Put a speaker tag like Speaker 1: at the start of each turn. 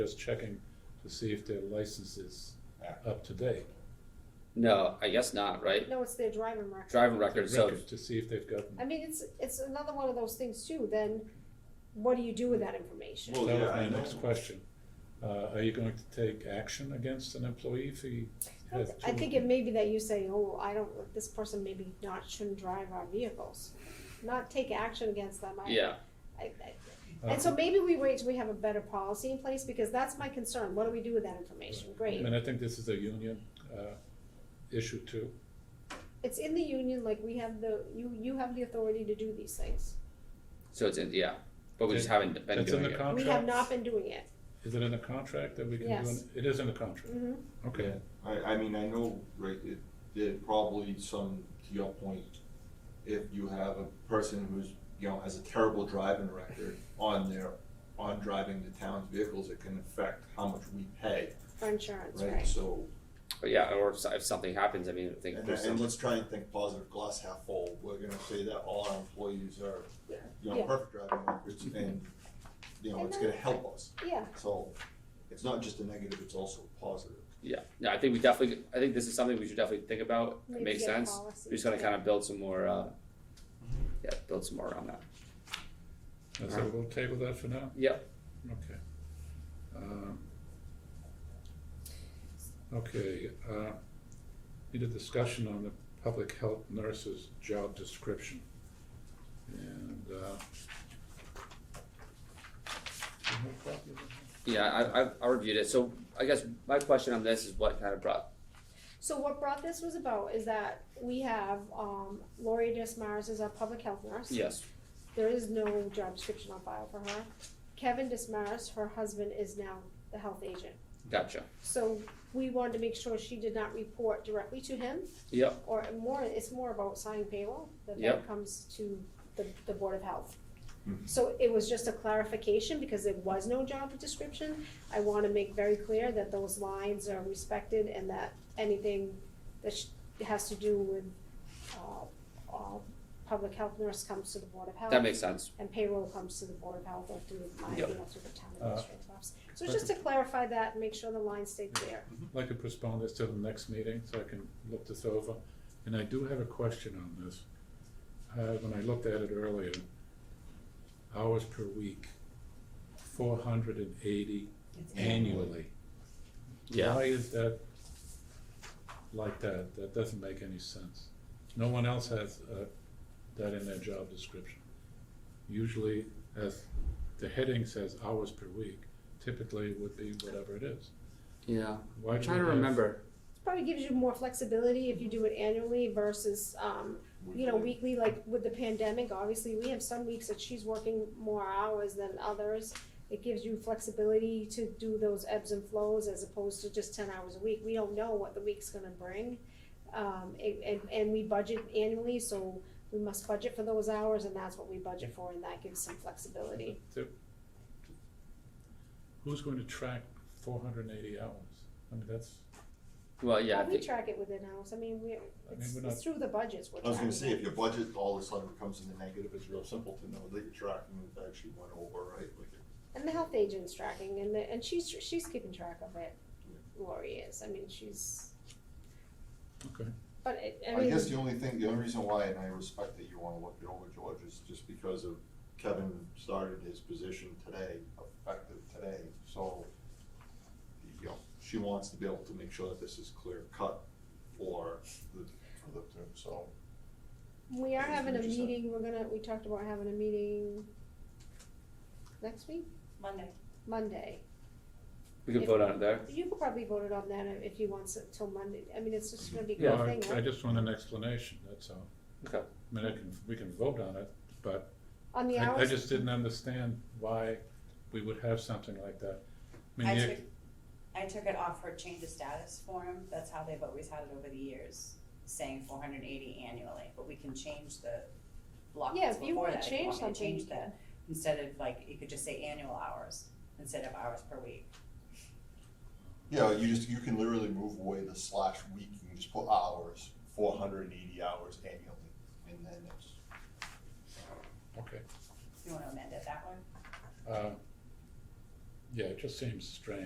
Speaker 1: Just checking to see if their license is up to date.
Speaker 2: No, I guess not, right?
Speaker 3: No, it's their driving record.
Speaker 2: Driving record, so,
Speaker 1: Record, To see if they've gotten,
Speaker 3: I mean, it's, it's another one of those things too, then what do you do with that information?
Speaker 1: that
Speaker 4: Well,
Speaker 1: was
Speaker 4: yeah,
Speaker 1: my
Speaker 4: I know.
Speaker 1: next question. Uh, are you going to take action against an employee if he has two?
Speaker 3: I think it may be that you say, oh, I don't, this person maybe not, shouldn't drive our vehicles, not take action against them. I-
Speaker 2: yeah,
Speaker 3: I- I-
Speaker 1: Uh,
Speaker 3: And so maybe we wait till we have a better policy in place, because that's my concern, what do we do with that information? Great,
Speaker 1: And I think this is a union, uh, issue too.
Speaker 3: it's in the union, like we have the, you, you have the authority to do these things.
Speaker 2: so it's in, yeah, but we just haven't been
Speaker 1: It's in
Speaker 2: doing
Speaker 1: the
Speaker 2: it.
Speaker 1: contract.
Speaker 3: We have not been doing it.
Speaker 1: Is it in the contract that we can do? an-
Speaker 3: Yes.
Speaker 1: It is in the contract,
Speaker 3: hmm
Speaker 1: okay.
Speaker 4: I, I mean, I know, right, it, there probably some, to your point, if you have a person who's, you know, has a terrible driving record on their, on driving the town's vehicles, it can affect how much we pay,
Speaker 3: for insurance,
Speaker 4: right?
Speaker 3: right?
Speaker 4: So,
Speaker 2: But yeah, or if, so- if something happens, I mean, I think
Speaker 4: and,
Speaker 2: there's
Speaker 4: and
Speaker 2: some,
Speaker 4: let's try and think positive, glass half full, we're gonna say that all our employees are, you know,
Speaker 3: Yeah.
Speaker 4: perfect driving records, and, you know,
Speaker 3: And
Speaker 4: it's
Speaker 3: then-
Speaker 4: gonna help us,
Speaker 3: Yeah,
Speaker 4: so, it's not just a negative, it's also a positive.
Speaker 2: yeah, no, I think we definitely, I think this is something we should definitely think about, it
Speaker 3: Maybe
Speaker 2: makes
Speaker 3: get a
Speaker 2: sense.
Speaker 3: policy,
Speaker 2: We're just gonna
Speaker 3: yeah.
Speaker 2: kind of build some more, uh, yeah, build some more around that.
Speaker 1: And so we'll table that for now?
Speaker 2: Yep.
Speaker 1: Okay. Um, Okay, uh, need a discussion on the public health nurse's job description. And, uh, do you have a copy of that?
Speaker 2: Yeah, I, I, I reviewed it, so I guess my question on this is what kind of brought,
Speaker 3: So what brought this was about is that we have, um, Lori Dismaris is our public health nurse.
Speaker 2: yes,
Speaker 3: There is no job description on file for her. Kevin Dismaris, her husband, is now the health agent.
Speaker 2: gotcha,
Speaker 3: So we wanted to make sure she did not report directly to him,
Speaker 2: yep,
Speaker 3: or more, it's more about signing payroll, that
Speaker 2: Yep. Mm-hmm.
Speaker 3: that comes to the, the Board of Health.
Speaker 4: Mhm.
Speaker 3: So it was just a clarification, because there was no job description, I wanna make very clear that those lines are respected and that anything that sh- has to do with, uh, uh, public health nurse comes to the Board of Health.
Speaker 2: that makes sense,
Speaker 3: And payroll comes to the Board of Health or through my, you
Speaker 2: Yep.
Speaker 3: know, through the town
Speaker 1: Uh,
Speaker 3: administrative office. So just to clarify that, and make sure the lines stay clear.
Speaker 1: I'd like to postpone this till the next meeting so I can look this over. And I do have a question on this. Uh, when I looked at it earlier, hours per week, four hundred and eighty annually.
Speaker 2: yeah.
Speaker 1: Why is that like that? That doesn't make any sense. No one else has uh, that in their job description. Usually, as the heading says hours per week, typically it would be whatever it is.
Speaker 2: Yeah,
Speaker 1: Why
Speaker 2: I'm
Speaker 1: do
Speaker 2: trying to
Speaker 1: we have-
Speaker 2: remember,
Speaker 3: Probably gives you more flexibility if you do it annually versus, um, you know, weekly, like with the pandemic, obviously, we have some weeks that she's working more hours than others. It gives you flexibility to do those ebbs and flows as opposed to just ten hours a week. We don't know what the week's gonna bring. Um, and, and, and we budget annually, so we must budget for those hours and that's what we budget for and that gives some flexibility.
Speaker 1: Who's going to track four hundred and eighty hours? I mean, that's,
Speaker 2: well, yeah, I
Speaker 3: Well, we
Speaker 2: think-
Speaker 3: track it within house, I mean, we, it's,
Speaker 1: we're
Speaker 3: it's through the budgets we're
Speaker 4: I was gonna say,
Speaker 3: tracking
Speaker 4: if
Speaker 3: it.
Speaker 4: your budget all of a sudden becomes in the negative, it's real simple to know that you're tracking what actually went over, right? Like,
Speaker 3: And the health agent's tracking, and the, and she's, she's keeping track of it, Lori is, I mean, she's,
Speaker 1: okay.
Speaker 3: but it, I
Speaker 4: I guess
Speaker 3: mean,
Speaker 4: the only thing, the only reason why, and I respect that you wanna look it over, George, is just because of Kevin started his position today, effective today, so. You know, she wants to be able to make sure that this is clear cut for the, for the, so.
Speaker 3: we are
Speaker 4: I guess
Speaker 3: having a
Speaker 4: we just have-
Speaker 3: meeting, we're gonna, we talked about having a meeting next week,
Speaker 5: Monday.
Speaker 3: Monday.
Speaker 2: we could
Speaker 3: if-
Speaker 2: vote on it there.
Speaker 3: You could probably vote it on that if you want it till Monday, I mean, it's just gonna be a
Speaker 1: No,
Speaker 3: good
Speaker 1: I-
Speaker 3: thing,
Speaker 1: I
Speaker 3: right?
Speaker 1: just want an explanation, that's all.
Speaker 2: Okay.
Speaker 1: I mean, I can, we can vote on it, but
Speaker 3: On the
Speaker 1: I, I
Speaker 3: hours,
Speaker 1: just didn't understand why we would have something like that. I
Speaker 5: I
Speaker 1: mean,
Speaker 5: took,
Speaker 1: you-
Speaker 5: I took it off her change of status form, that's how they've always had it over the years, saying four hundred and eighty annually, but we can change the block
Speaker 3: Yeah,
Speaker 5: that's
Speaker 3: if you
Speaker 5: before
Speaker 3: wanna
Speaker 5: that, if
Speaker 3: change
Speaker 5: you want me to
Speaker 3: something, you
Speaker 5: change that, instead of like, you could just say annual hours, instead of hours per week.
Speaker 4: Yeah, you just, you can literally move away the slash week, you can just put hours, four hundred and eighty hours annually, and then it's.
Speaker 1: okay.
Speaker 5: You wanna amend it that way?
Speaker 1: Uh, yeah, it just seems strange